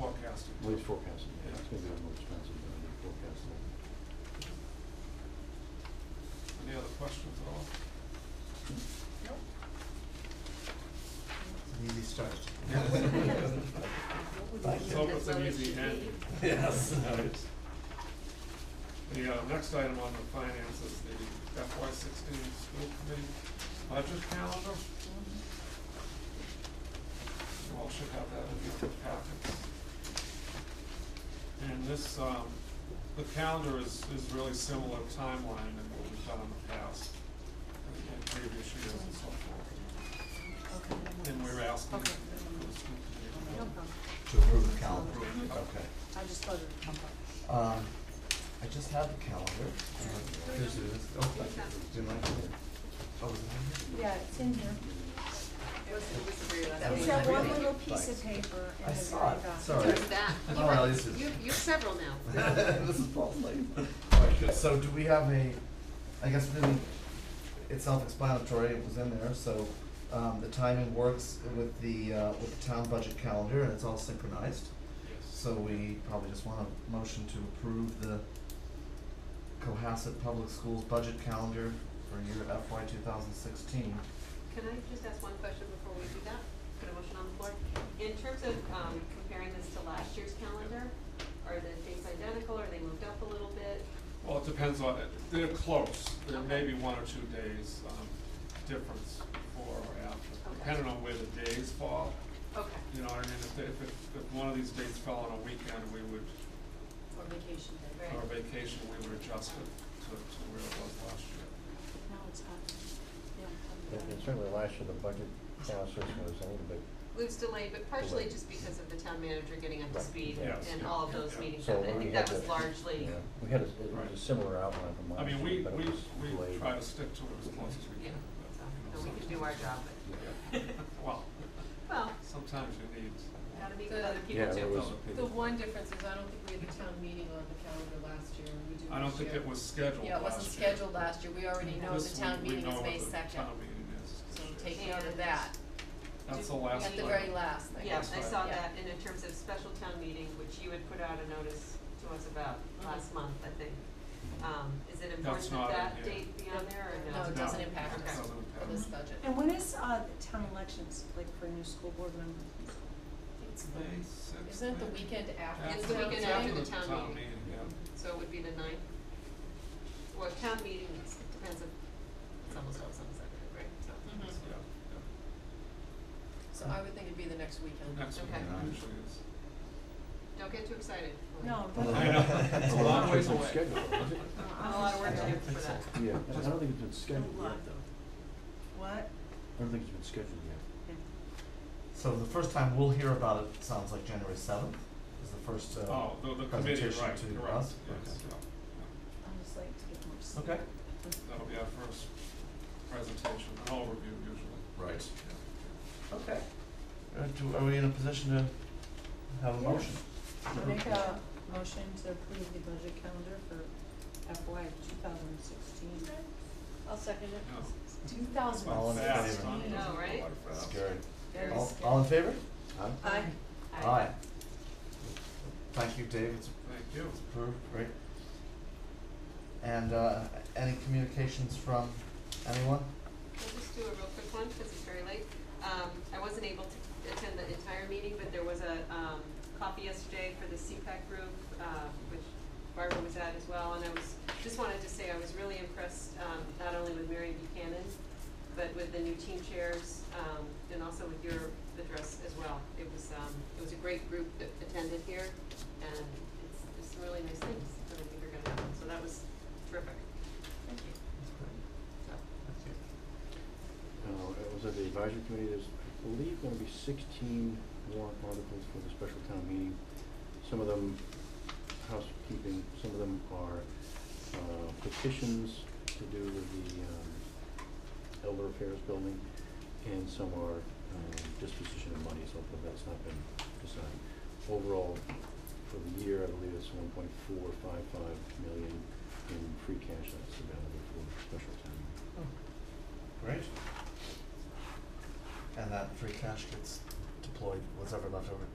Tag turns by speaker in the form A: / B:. A: At least forecasting, yeah, it's gonna be a little expensive, but I think forecasting.
B: Any other questions at all?
C: An easy start.
B: Let's hope it's an easy end.
C: Yes.
B: The uh, next item on the finance is the FY sixteen school committee budget calendar. You all should have that in your packets. And this, um, the calendar is, is really similar timeline than what we've done in the past, and and previous years and so forth. And we're asking
D: Okay.
B: for the school
D: No
B: committee.
D: problem.
C: To approve the calendar.
B: Approve.
C: Okay.
D: I just thought it would come up.
C: Um, I just have the calendar. Uh, This is, oh, I did- didn't I? Oh, was it on
D: Yeah, it's in here.
C: That
D: It's
C: was
D: that one
C: really
D: little piece
C: nice.
D: of paper
C: I
D: in the
C: saw
D: very
C: it,
D: back.
C: sorry.
E: Who's that?
C: Oh,
E: You have-
C: well, this is-
E: You, you have several now.
C: here? This is false light. All right, good. So do we have a, I guess it didn't, it's self-explanatory, it was in there, so, um, the timing works with the, uh, with the town budget calendar and it's all synchronized.
B: Yes.
C: So we probably just want a motion to approve the Cohasset Public Schools budget calendar for year FY two thousand sixteen.
E: Can I just ask one question before we do that? Put a motion on the floor. In terms of, um, comparing this to last year's calendar, are the dates identical? Are they moved up a little bit?
B: Well, it depends on, it. they're close, there may be one or two days, um, difference before or after,
E: Okay.
B: depending on where the days fall.
E: Okay.
B: You know, what I mean, if, they- if, it- if one of these dates fell on a weekend, we would,
E: Or vacation day,
B: or
E: right?
B: vacation, we would adjust it to, to where it was last year.
D: Now it's up.
A: Yeah, and Certainly last year, the budget process was a little bit,
E: It was delayed, but partially
A: Delayed.
E: just because of the town manager getting up to
A: Right.
E: speed
B: Yes.
E: and all of those
B: Yeah.
E: meetings.
A: so
E: happened. I
A: we
E: think
A: had
E: that was
A: the-
E: largely,
A: yeah, we had a, it was a
B: Right.
A: similar outline from
B: I
A: last
B: mean,
A: year,
B: we,
A: but it
B: we,
A: was
B: we
A: delayed.
B: try to stick to it as close as we
E: yeah,
B: can. but,
E: so, and
B: you
E: we
B: know,
E: can do our job, but.
B: sometimes- Well,
E: Well,
B: sometimes you need,
E: gotta meet
F: The-
E: with other people
A: Yeah,
E: too.
A: there was-
F: The one difference is I don't think we had the town meeting on the calendar last year, we did this year.
B: I don't think it was scheduled last year.
F: Yeah, it wasn't scheduled last year, we already know
B: This
F: the town
B: we- we
F: meeting
B: know
F: is
B: what
F: May
B: the
F: second,
B: town meeting is this
F: so
B: year.
F: take note of that,
B: That's the last
F: at the
B: one.
F: very last thing.
E: Yeah,
B: That's
E: I
B: right.
E: saw
F: Yeah.
E: that, and in terms of special town meeting, which you had put out a notice to us about last month, I think. Um, is it important
B: not
E: that
B: in
E: that
B: here.
E: date be on there or no?
F: No, it doesn't
B: No.
F: impact us
E: Okay.
F: for this budget.
D: And when is, uh, the town elections, like for a new school board member?
F: It's the-
B: May sixth.
F: Isn't it the
B: maybe?
F: weekend after?
E: It's the weekend after the town meeting.
B: yeah.
E: So it would be the ninth? Well, town meeting, it's- it depends on, it's almost always on the second, right, so.
F: Mhm.
B: Yeah, yeah.
F: So I would think it'd be the next weekend.
B: Next week
E: Okay.
B: usually is.
E: Don't get too excited.
D: No, but.
B: I know, it's a long ways away.
A: Scheduled, was it?
E: Not a lot of work to do for that.
A: Yeah, I don't think it's been scheduled yet, though.
D: What?
A: I don't think it's been scheduled yet.
C: So the first time we'll hear about it, sounds like January seventh is the first, uh,
B: Oh, the, the committee, right,
C: presentation
B: correct,
C: to
B: yes,
C: us?
B: yeah.
D: I just like to get more. sleep.
C: okay.
B: That'll be our first presentation, an overview usually.
C: Right. Okay. Uh, do, are we in a position to have a
D: Yeah.
C: motion?
D: I Make a motion to approve the budget calendar for FY two thousand sixteen. I'll second it.
B: No.
D: Two thousand
C: All in
B: Fast,
C: favor?
B: huh?
D: I know,
E: right?
B: Fast.
C: Scary.
D: Very
C: All,
D: scary.
C: all in favor? Aye.
D: Aye.
C: Aye. Thank you, Dave, it's
B: Thank you.
C: approved, great. And, uh, any communications from anyone?
E: I'll just do a real quick one, because it's very late. Um, I wasn't able to attend the entire meeting, but there was a, um, coffee yesterday for the CPAC group, uh, which Barbara was at as well, and I was, just wanted to say I was really impressed, um, not only with Mary Buchanan, but with the new team chairs, um, and also with your address as well. It was, um, it was a great group that attended here, and it's, it's some really nice things that I think are gonna happen, so that was terrific. Thank you.
A: Uh, it was at the advisory committee, there's, I believe, gonna be sixteen warrant articles for the special town meeting. Some of them housekeeping, some of them are uh, petitions to do with the um, elder affairs building, and some are um, disposition of money, so hopefully that's not been decided. Overall, for the year, I believe it's one point four five five million in free cash that's available for special town meeting.
C: Great. And that free cash gets deployed, whatever left over